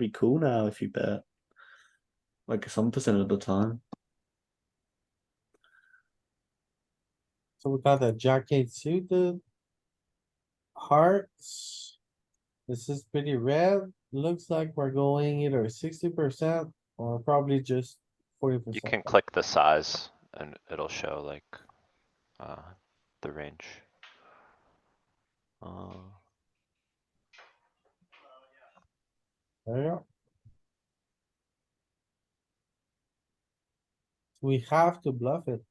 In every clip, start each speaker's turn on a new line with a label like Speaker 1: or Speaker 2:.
Speaker 1: pretty cool now if you bet. Like some percent of the time.
Speaker 2: So we got a jack eight suited. Hearts. This is pretty red. Looks like we're going either sixty percent or probably just forty percent.
Speaker 3: You can click the size and it'll show like, uh, the range. Uh,
Speaker 4: Ah.
Speaker 2: There you go. We have to bluff it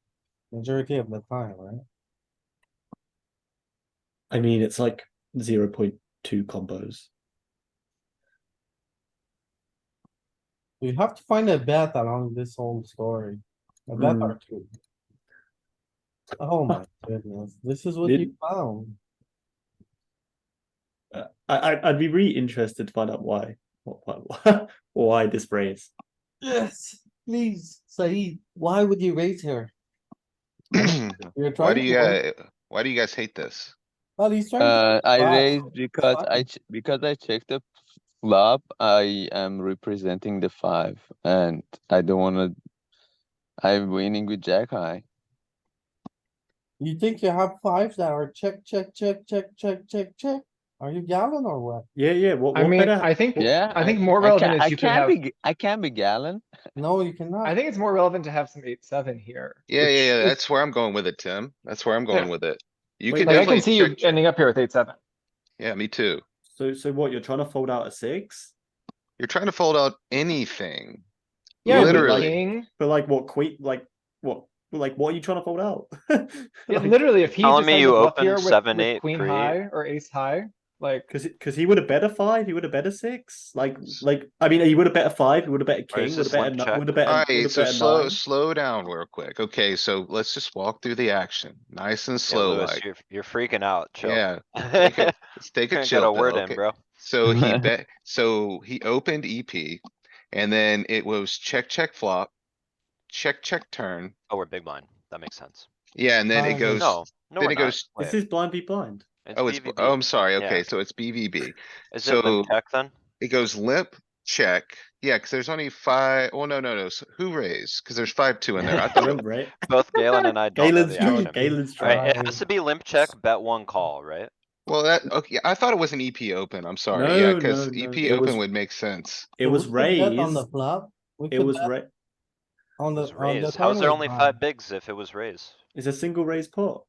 Speaker 2: majority of the time, right?
Speaker 1: I mean, it's like 0.2 combos.
Speaker 2: We have to find a bet along this whole story. A bet
Speaker 1: Hmm.
Speaker 2: or two. Oh my goodness, this is what
Speaker 1: Did-
Speaker 2: you found.
Speaker 1: Uh, I, I, I'd be really interested to find out why. What, why, why this raise.
Speaker 2: Yes, please, Said, why would you raise here? You're
Speaker 5: Why
Speaker 2: trying
Speaker 5: do
Speaker 2: to.
Speaker 5: you,
Speaker 2: win-
Speaker 5: guy- why do you guys hate this?
Speaker 2: Well, he's trying to,
Speaker 6: Uh, I
Speaker 2: Wow.
Speaker 6: raised because
Speaker 2: Wow.
Speaker 6: I ch- because I checked the flop. I am representing the five, and I don't want to. I'm winning with Jack High.
Speaker 2: you think you have fives that are check, check, check, check, check, check, check? Are you gallon or what?
Speaker 1: Yeah, yeah. What,
Speaker 4: I
Speaker 1: what
Speaker 4: mean,
Speaker 1: better-
Speaker 4: I think,
Speaker 6: Yeah,
Speaker 4: I think more relevant
Speaker 6: I
Speaker 4: is you could
Speaker 6: can
Speaker 4: have,
Speaker 6: be. g- I can be Gallon.
Speaker 2: No, you cannot.
Speaker 4: I think it's more relevant to have some eight, seven here.
Speaker 5: Yeah,
Speaker 4: which
Speaker 5: yeah, yeah,
Speaker 4: is-
Speaker 5: that's where I'm going with it, Tim. That's where I'm
Speaker 4: Yeah.
Speaker 5: going with it. You
Speaker 1: Wait,
Speaker 5: could
Speaker 4: Like, I can
Speaker 5: definitely,
Speaker 4: see you
Speaker 5: check-
Speaker 4: ending up here with eight, seven.
Speaker 5: yeah, me too.
Speaker 1: so, so what? You're trying to fold out a six?
Speaker 5: You're trying to fold out anything.
Speaker 4: Yeah, with
Speaker 5: Literally.
Speaker 4: king.
Speaker 1: But like, what? Queen? Like, what? Like, what are you trying to fold out?
Speaker 4: Yeah, literally, if he
Speaker 3: Telling
Speaker 4: just
Speaker 3: me
Speaker 4: has a
Speaker 3: you
Speaker 4: bluff
Speaker 3: open
Speaker 4: here with-
Speaker 3: seven,
Speaker 4: with
Speaker 3: eight,
Speaker 4: Queen
Speaker 3: three.
Speaker 4: high or ace high, like,
Speaker 1: Because because he would have bet a five, he would have bet a six. Like like I mean, he would have bet a five, he would have bet a
Speaker 3: Or is
Speaker 1: king, would have
Speaker 3: this
Speaker 1: bet a
Speaker 3: limp check?
Speaker 1: would have bet. a-
Speaker 5: Alright,
Speaker 1: would've
Speaker 5: so
Speaker 1: bet a
Speaker 5: slow,
Speaker 1: nine.
Speaker 5: slow down real quick. Okay, so let's just walk through the action, nice and
Speaker 3: yeah,
Speaker 5: slow
Speaker 3: Louis,
Speaker 5: like.
Speaker 3: you're, you're freaking out, chill.
Speaker 5: Yeah,
Speaker 3: I
Speaker 5: okay. let's take a
Speaker 3: Got
Speaker 5: chill
Speaker 3: a
Speaker 5: pill,
Speaker 3: word in,
Speaker 5: okay?
Speaker 3: bro.
Speaker 5: So he bet, so he opened EP and then it was check, check flop. Check, check turn.
Speaker 3: Oh, we're big blind. That makes sense.
Speaker 5: Yeah, and then it
Speaker 2: Nice.
Speaker 5: goes,
Speaker 3: Oh, No, no,
Speaker 5: then
Speaker 3: we're
Speaker 5: it
Speaker 3: not.
Speaker 5: goes-
Speaker 1: This
Speaker 3: Wait,
Speaker 1: is blind v blind.
Speaker 5: oh, it's,
Speaker 3: BVB.
Speaker 5: oh, I'm sorry.
Speaker 3: Yeah.
Speaker 5: Okay, so it's BVB.
Speaker 3: Is it limp
Speaker 5: so-
Speaker 3: check then?
Speaker 5: It goes limp, check. Yeah, cuz there's only five, well, no, no, no. so Who raised? Cuz there's five, two in there. I
Speaker 1: Real
Speaker 5: thought,
Speaker 1: right?
Speaker 3: Both Galen and I don't know
Speaker 1: Galen's
Speaker 3: the acronym.
Speaker 1: Galen's
Speaker 3: Alright,
Speaker 1: trying.
Speaker 3: it has to be limp check, bet one call, right?
Speaker 5: well, that, okay, I thought it was an EP open. I'm sorry.
Speaker 1: No,
Speaker 5: Yeah, cuz
Speaker 1: no, no,
Speaker 5: EP
Speaker 1: it was-
Speaker 5: open would make sense.
Speaker 1: It
Speaker 2: So
Speaker 1: was
Speaker 2: we could bet On
Speaker 1: raised.
Speaker 2: the flop. We
Speaker 1: It
Speaker 2: could
Speaker 1: was
Speaker 2: bet
Speaker 1: ra-
Speaker 2: On
Speaker 3: It
Speaker 2: the,
Speaker 3: was
Speaker 2: on the.
Speaker 3: raised. How's there
Speaker 2: final
Speaker 3: only
Speaker 2: round.
Speaker 3: five bigs if it was raised?
Speaker 1: It's a single raise pot,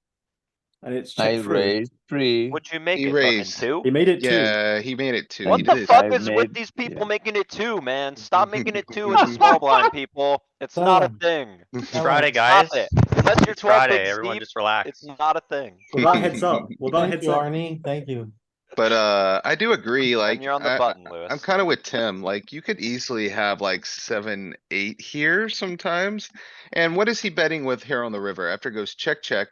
Speaker 1: and it's
Speaker 6: I
Speaker 1: check through.
Speaker 6: raised three.
Speaker 3: Would you make
Speaker 5: He
Speaker 3: it fucking
Speaker 5: raised.
Speaker 3: two?
Speaker 1: He made it two.
Speaker 5: Yeah, he made it two.
Speaker 3: What
Speaker 5: he
Speaker 3: the
Speaker 5: did.
Speaker 3: fuck
Speaker 6: I
Speaker 3: is with
Speaker 6: made-
Speaker 3: these
Speaker 6: yeah.
Speaker 3: people making it two, man? Stop making it two in the small blind, people. It's not a
Speaker 2: Done.
Speaker 3: thing.
Speaker 2: That
Speaker 7: Friday,
Speaker 2: was-
Speaker 3: Stop
Speaker 7: guys.
Speaker 3: it. Unless you're
Speaker 7: It's
Speaker 3: twelve
Speaker 7: Friday,
Speaker 3: bigs
Speaker 7: everyone
Speaker 3: deep,
Speaker 7: just relax.
Speaker 3: it's not a thing.
Speaker 1: Well, that heads up. Well, that
Speaker 2: Thank
Speaker 1: heads
Speaker 2: you,
Speaker 1: up.
Speaker 2: Arnie. Thank you.
Speaker 5: But, uh, I do agree, like,
Speaker 3: And you're on the
Speaker 5: I-
Speaker 3: button,
Speaker 5: I'm
Speaker 3: Louis.
Speaker 5: kinda with Tim, like you could easily have like seven, eight here sometimes. And what is he betting with here on the river? After it goes check, check,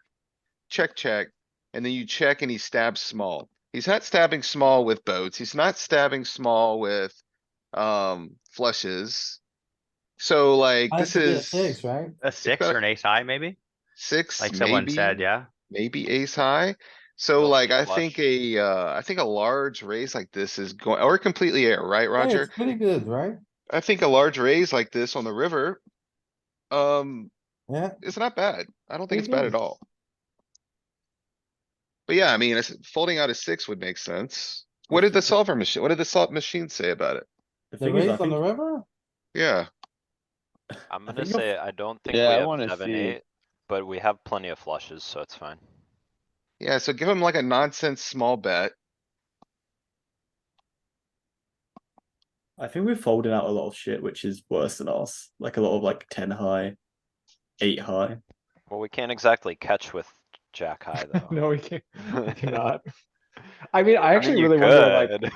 Speaker 5: check, check, and then you check and he stabs small. He's not stabbing small with boats. He's not stabbing small with, um, flushes. So like,
Speaker 2: I
Speaker 5: this
Speaker 2: should be a
Speaker 5: is
Speaker 2: Six, right?
Speaker 7: A six
Speaker 5: got-
Speaker 7: or an ace high, maybe?
Speaker 5: six,
Speaker 7: Like someone
Speaker 5: maybe,
Speaker 7: said, yeah.
Speaker 5: maybe ace high. So
Speaker 3: Well,
Speaker 5: like, I
Speaker 3: flush.
Speaker 5: think a, uh, I think a large raise like this is going, or completely air, right,
Speaker 2: Hey,
Speaker 5: Roger?
Speaker 2: it's Pretty good, right?
Speaker 5: I think a large raise like this on the river, um,
Speaker 2: Yeah,
Speaker 5: it's not bad. I don't think
Speaker 2: It
Speaker 5: it's bad
Speaker 2: is.
Speaker 5: at all. But yeah, I mean, it's- folding out a six would make sense. What did the solver machine, what did the salt machine say about it?
Speaker 1: The
Speaker 2: the
Speaker 1: thing is, I
Speaker 2: raise on the
Speaker 1: think,
Speaker 2: river?
Speaker 5: Yeah,
Speaker 3: I'm
Speaker 1: I
Speaker 3: gonna
Speaker 1: think I'll-
Speaker 3: say, I don't think we
Speaker 6: Yeah, I
Speaker 3: have
Speaker 6: wanna
Speaker 3: seven,
Speaker 6: see.
Speaker 3: eight, but we have plenty of flushes, so it's fine.
Speaker 5: yeah, so give him like a nonsense small bet.
Speaker 1: I think we're folding out a lot of shit, which is worse than us. Like a lot of like ten high, eight high.
Speaker 3: Well, we can't exactly catch with jack high, though.
Speaker 4: no, we can't, we cannot. I mean, I actually really wonder, like,
Speaker 3: good.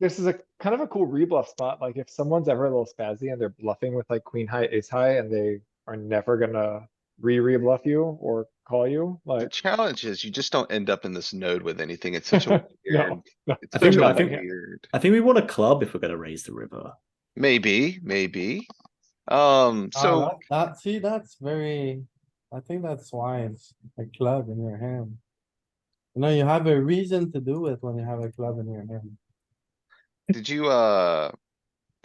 Speaker 4: this is a kind of a cool rebluff spot, like if someone's ever a little spazzy and they're bluffing with like queen high, ace high, and they are never gonna re-rebluff you or call you,
Speaker 5: The
Speaker 4: like.
Speaker 5: challenge is you just don't end up in this node with anything. It's such a weird,
Speaker 4: No, no,
Speaker 5: it's
Speaker 1: I
Speaker 5: such
Speaker 1: think-
Speaker 5: a
Speaker 1: I think-
Speaker 5: weird.
Speaker 1: I think we want a club if we're gonna raise the river.
Speaker 5: Maybe, maybe.
Speaker 1: Uh,
Speaker 5: Um,
Speaker 2: Ah,
Speaker 5: so.
Speaker 2: that- That, see, that's very, I think that's why it's a club in your hand. You know, you have a reason to do it when you have a club in your hand.
Speaker 5: Did you, uh,